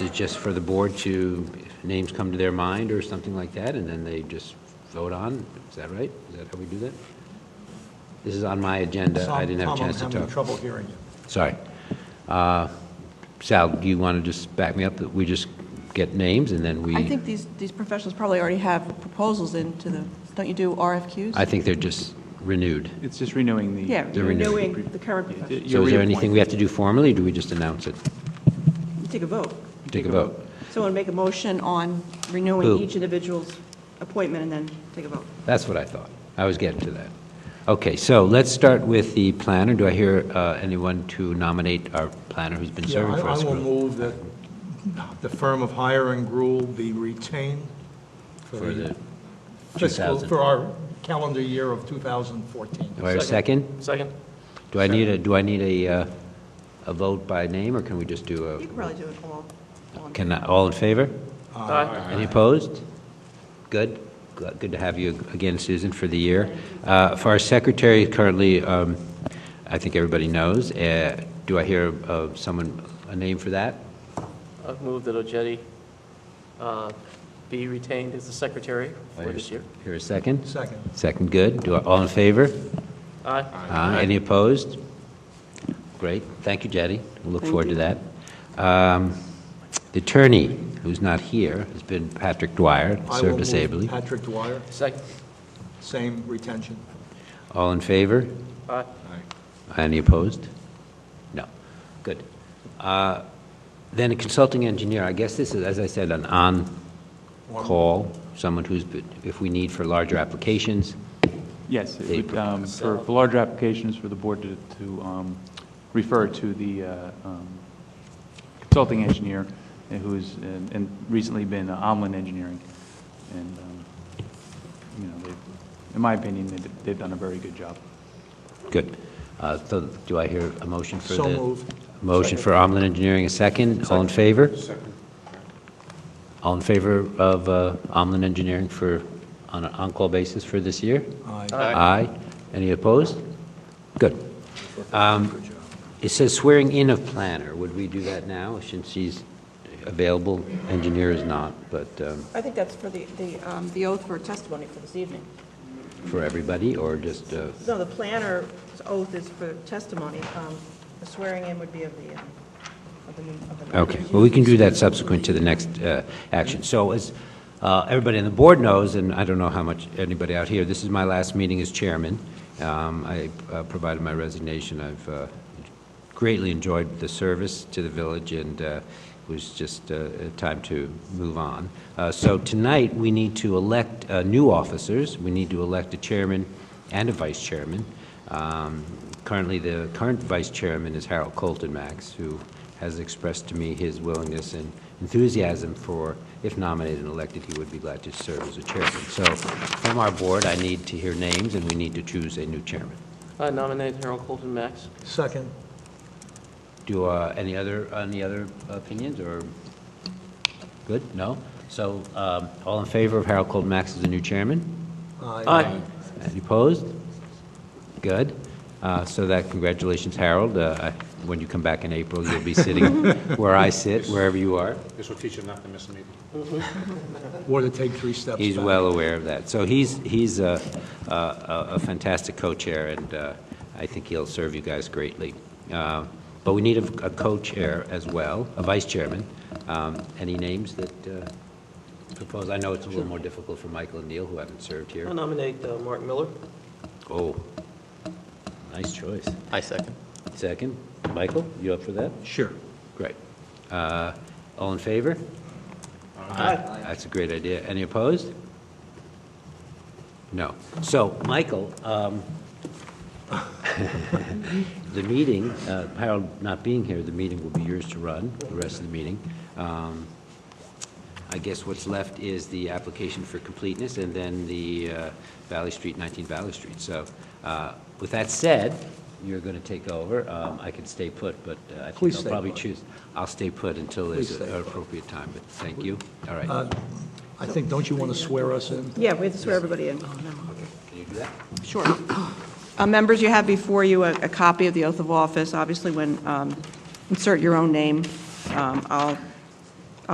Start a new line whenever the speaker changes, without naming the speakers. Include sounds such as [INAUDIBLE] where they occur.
it's just for the board to, if names come to their mind or something like that, and then they just vote on? Is that right? Is that how we do that? This is on my agenda. I didn't have a chance to
Tom, I'm having
talk.
trouble hearing you.
Sorry. Uh, Sal, do you want to just back me up that we just get names and then we?
I think these, these professionals probably already have proposals into the, don't you do RFQs?
I think they're just renewed.
It's just renewing the.
Yeah,
They're renewed.
renewing the current professionals.
So is there anything we have to do formally, or do we just announce it?
You Take a vote.
Take a vote.
Someone make a motion on renewing
Who?
each individual's appointment and then take a vote.
That's what I thought. I was getting to that. Okay, so let's start with the planner. Do I hear uh, anyone to nominate our planner who's been
Yeah,
serving for
I- I
us?
will
for-
move that the firm of Hire and Gruel be retained for
For the
the fiscal,
2000.
for our calendar year of 2014.
Do I hear a second?
Second?
Do I need a, do I need a, uh, a vote by name, or can we just do
You can
a,
probably do it all. all in-
can, I- all in favor?
Aye.
Any opposed? Good. Good good to have you again, Susan, for the year. Uh, For our secretary currently, um, I think everybody knows, uh, do I hear uh, someone, a name for that?
I've moved that Ojetti uh, be retained as the secretary for this year.
Hear a second?
Second.
Second, good. Do I- All in favor?
Aye.
Aye. Any opposed? Great. Thank you, Jettie. We'll Look forward to that. Um, The attorney, who's not here, has been Patrick Dwyer,
I will
served us
move
ably.
Patrick Dwyer,
Second?
same retention.
All in favor?
Aye.
Any opposed? No. Good. Uh, Then a consulting engineer, I guess this is, as I said, an on-call, someone who's, been- if we need for larger applications,
Yes,
They
it would, um, for
propose.
for larger applications for the board to, to um, refer to the uh, um, consulting engineer uh, who's, uh, and recently been Omlin Engineering. And, um, you know, they've, in my opinion, they've, they've done a very good job.
Good. Uh, So do I hear a motion for the?
So moved.
Motion for Omlin Engineering, a second. All in favor? Second. All in favor of uh, Omlin Engineering for, on an on-call basis for this year?
Aye.
Aye. Any opposed? Good. Um, It says swearing in of planner. Would we do that now, since she's available? Engineer is not, but um,
I think that's for the, the, um, the oath for testimony for this evening.
for everybody, or just, uh,
No, the planner's oath is for testimony. Um, The swearing in would be of the, um, of the new, of the.
okay. Well, we can do that subsequent to the next uh, action. So as uh, everybody on the board knows, and I don't know how much anybody out here, this is my last meeting as chairman. Um, I uh, provided my resignation. I've uh, greatly enjoyed the service to the village, and uh, it was just uh, time to move on. Uh, So tonight, we need to elect uh, new officers. We need to elect a chairman and a vice chairman. Um, Currently, the current vice chairman is Harold Colton Max, who has expressed to me his willingness and enthusiasm for, if nominated and elected, he would be glad to serve as a chairman. So from our board, I need to hear names, and we need to choose a new chairman.
I nominate Harold Colton Max.
Second.
Do uh, any other, any other opinions, or, good, no? So, um, all in favor of Harold Cold Max as the new chairman?
Aye.
Any opposed? Good. Uh, So that, congratulations, Harold. Uh, I- When you come back in April, you'll be sitting where I sit, wherever you are.
This will teach you not to miss a meeting.
Or to take three steps back.
He's well aware of that. So he's, he's a a- a- a fantastic co-chair, and uh, I think he'll serve you guys greatly. Uh, But we need a a co-chair as well, a vice chairman. Um, Any names that uh, propose? I know it's a little more difficult for Michael and Neil, who haven't served here.
I nominate uh, Mark Miller.
Oh, nice choice.
I second.
Second, Michael, you up for that?
Sure.
Great. Uh, All in favor?
Aye.
That's a great idea. Any opposed? No. So, Michael, um, [LAUGHS] the meeting, uh, Harold not being here, the meeting will be yours to run, the rest of the meeting. Um, I guess what's left is the application for completeness and then the uh, Valley Street, 19 Valley Street. So uh, with that said, you're going to take over. Um, I can stay put, but uh, I
Please
think I'll
stay
probably
put.
choose, I'll stay put until
Please
there's
stay
an
put. Uh,
appropriate time, but thank you. All right.
I think, don't you want to swear us in?
Yeah, we have to swear everybody in.
Can you do that?
Sure. Uh, Members, you have before you a a copy of the oath of office. Obviously, when, um, insert your own name, Um, I'll